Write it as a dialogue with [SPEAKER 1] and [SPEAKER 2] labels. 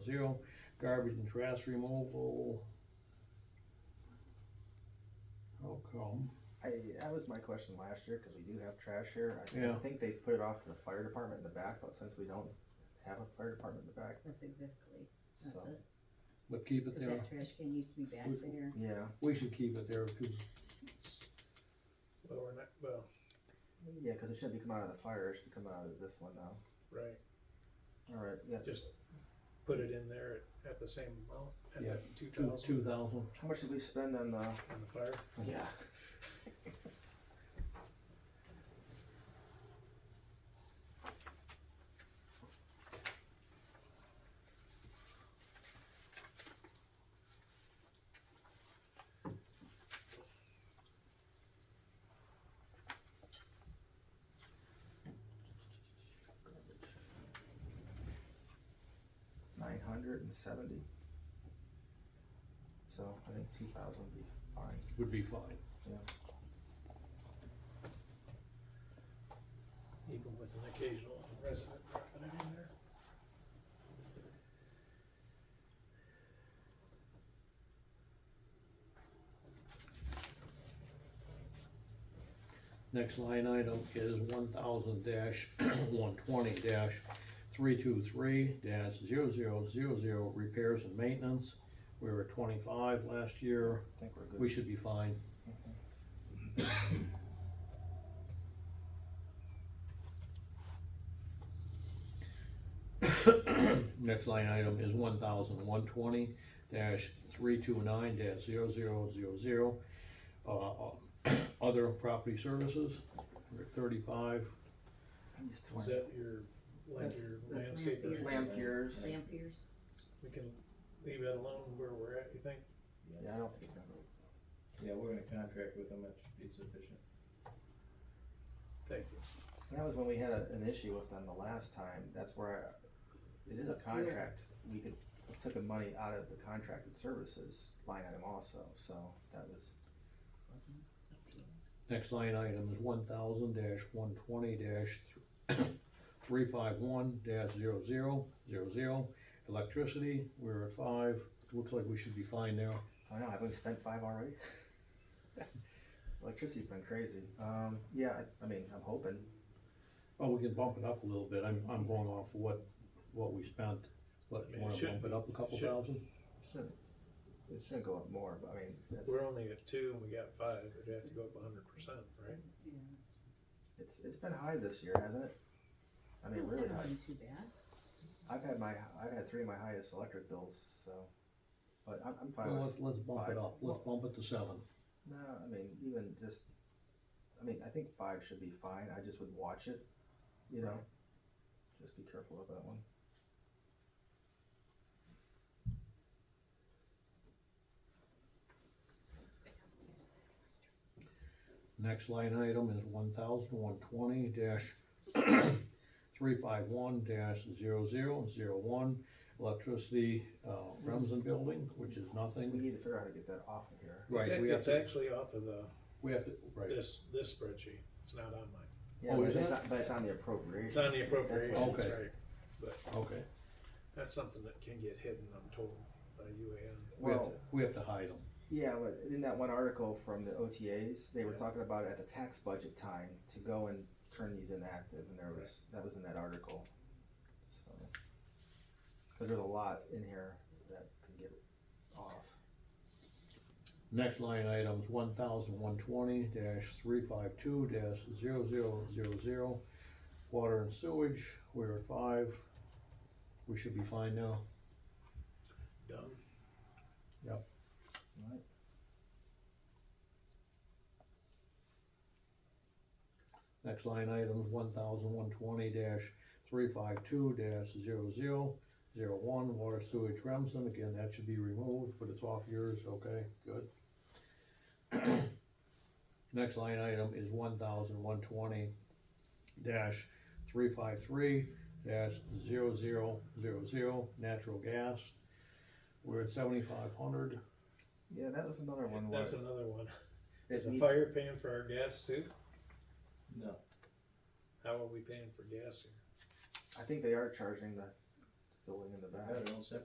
[SPEAKER 1] zero. Garbage and trash removal. How come?
[SPEAKER 2] I, that was my question last year, cause we do have trash here, I- I
[SPEAKER 1] Yeah.
[SPEAKER 2] think they put it off to the fire department in the back, but since we don't have a fire department in the back,
[SPEAKER 3] That's exactly, that's
[SPEAKER 2] so,
[SPEAKER 3] it,
[SPEAKER 1] But keep it
[SPEAKER 3] cause
[SPEAKER 1] there.
[SPEAKER 3] that trash can used to be back there.
[SPEAKER 2] yeah,
[SPEAKER 1] We should keep it there because
[SPEAKER 4] Well, we're not, well,
[SPEAKER 2] yeah, cause it shouldn't be coming out of the fire, it should come out of this one now.
[SPEAKER 4] right,
[SPEAKER 2] Alright, yeah,
[SPEAKER 4] just put it in there at, at the same amount, at
[SPEAKER 1] Yeah,
[SPEAKER 4] that two
[SPEAKER 1] two, two
[SPEAKER 4] thousand
[SPEAKER 1] thousand.
[SPEAKER 2] how much did we spend on the,
[SPEAKER 4] on the fire.
[SPEAKER 2] yeah, nine hundred and seventy? So I think two thousand would be fine.
[SPEAKER 1] Would be fine.
[SPEAKER 2] Yeah,
[SPEAKER 4] Even with an occasional resident dropping it in there.
[SPEAKER 1] Next line item is one thousand dash, one twenty dash, three two three dash zero zero zero zero repairs and maintenance. We were at twenty-five last year.
[SPEAKER 2] I think we're good.
[SPEAKER 1] We should be fine.
[SPEAKER 2] Mhm.
[SPEAKER 1] Next line item is one thousand one twenty dash three two nine dash zero zero zero zero. Uh, other property services, we're at thirty-five,
[SPEAKER 2] He's
[SPEAKER 4] Is
[SPEAKER 2] 20.
[SPEAKER 4] that your, like
[SPEAKER 2] That's-
[SPEAKER 4] your
[SPEAKER 2] that's
[SPEAKER 4] landscape?
[SPEAKER 3] Lampier.
[SPEAKER 2] Lampiers.
[SPEAKER 3] Lampiers,
[SPEAKER 4] We can leave that alone where we're at, you think?
[SPEAKER 2] Yeah, I don't think it's gonna.
[SPEAKER 5] Yeah, we're gonna contract with them, that should be sufficient.
[SPEAKER 4] Thank you.
[SPEAKER 2] That was when we had a, an issue with them the last time. That's where I, it is a contract. We could have taken money out of the contracted services line item also. So that was
[SPEAKER 3] wasn't it?
[SPEAKER 1] Next line item is one thousand dash one twenty dash three five one dash zero zero zero zero. Electricity, we're at five, looks like we should be fine there.
[SPEAKER 2] I don't know. Have we spent five already? Electricity's been crazy. Um, yeah, I, I mean, I'm hoping.
[SPEAKER 1] Oh, we can bump it up a little bit, I'm, I'm going off what, what we spent, but
[SPEAKER 4] I
[SPEAKER 1] you
[SPEAKER 4] mean, it
[SPEAKER 1] wanna
[SPEAKER 4] should
[SPEAKER 1] bump it
[SPEAKER 4] be-
[SPEAKER 1] up a couple
[SPEAKER 4] should-
[SPEAKER 1] thousand?
[SPEAKER 2] Shouldn't it shouldn't go up more? But I mean, that's,
[SPEAKER 4] We're only at two and we got five, we'd have to go up a hundred percent, right?
[SPEAKER 3] Yeah.
[SPEAKER 2] it's it's been high this year, hasn't it? I mean,
[SPEAKER 3] Those
[SPEAKER 2] really
[SPEAKER 3] haven't
[SPEAKER 2] high.
[SPEAKER 3] been Too bad,
[SPEAKER 2] I've had my I've had three of my highest electric bills. So, but I'm, I'm fine
[SPEAKER 1] Well,
[SPEAKER 2] with
[SPEAKER 1] let's, let's bump it up, let's bump it to seven.
[SPEAKER 2] No, I mean, even just, I mean, I think five should be fine. I just would watch it, you know. Just be careful with that one.
[SPEAKER 1] Next line item is one thousand one twenty dash three five one dash zero zero zero one. Electricity, uh, Remsen Building, which is
[SPEAKER 2] We
[SPEAKER 1] nothing.
[SPEAKER 2] need to figure out how to get that off of here.
[SPEAKER 4] It's
[SPEAKER 1] Right,
[SPEAKER 4] ac-
[SPEAKER 1] we have
[SPEAKER 4] It's
[SPEAKER 1] to,
[SPEAKER 4] actually off of the,
[SPEAKER 1] we have to, right,
[SPEAKER 4] this, this spreadsheet, it's not on mine.
[SPEAKER 2] Yeah,
[SPEAKER 1] Oh,
[SPEAKER 2] but,
[SPEAKER 1] is
[SPEAKER 2] it's
[SPEAKER 1] it?
[SPEAKER 2] on, but it's on the appropriation.
[SPEAKER 4] It's on the appropriations,
[SPEAKER 1] Okay.
[SPEAKER 4] right?
[SPEAKER 1] okay.
[SPEAKER 4] That's something that can get hidden, I'm told, by UAN.
[SPEAKER 1] We have
[SPEAKER 2] Well-
[SPEAKER 1] to, we have to hide them.
[SPEAKER 2] Yeah, but in that one article from the OTAs, they were
[SPEAKER 4] Yeah.
[SPEAKER 2] talking about at the tax budget time to go and turn these inactive, and there was that was in that article. So, because there's a lot in here that could get off.
[SPEAKER 1] Next line item's one thousand one twenty dash three five two dash zero zero zero zero. Water and sewage, we're at five. We should be fine now.
[SPEAKER 4] Done.
[SPEAKER 2] Right.
[SPEAKER 1] Next line item is one thousand one twenty dash three five two dash zero zero zero one, water sewage Remsen, again, that should be removed, but it's off yours, okay, good. Next line item is one thousand one twenty dash three five three dash zero zero zero zero, natural gas. We're at seventy-five hundred,
[SPEAKER 2] Yeah, that was another one. where
[SPEAKER 4] That's another one.
[SPEAKER 2] it
[SPEAKER 4] Is the
[SPEAKER 2] needs-
[SPEAKER 4] fire paying for our gas too?
[SPEAKER 5] No.
[SPEAKER 4] How are we paying for gas here?
[SPEAKER 2] I think they are charging the building in the back.
[SPEAKER 5] Got their own separate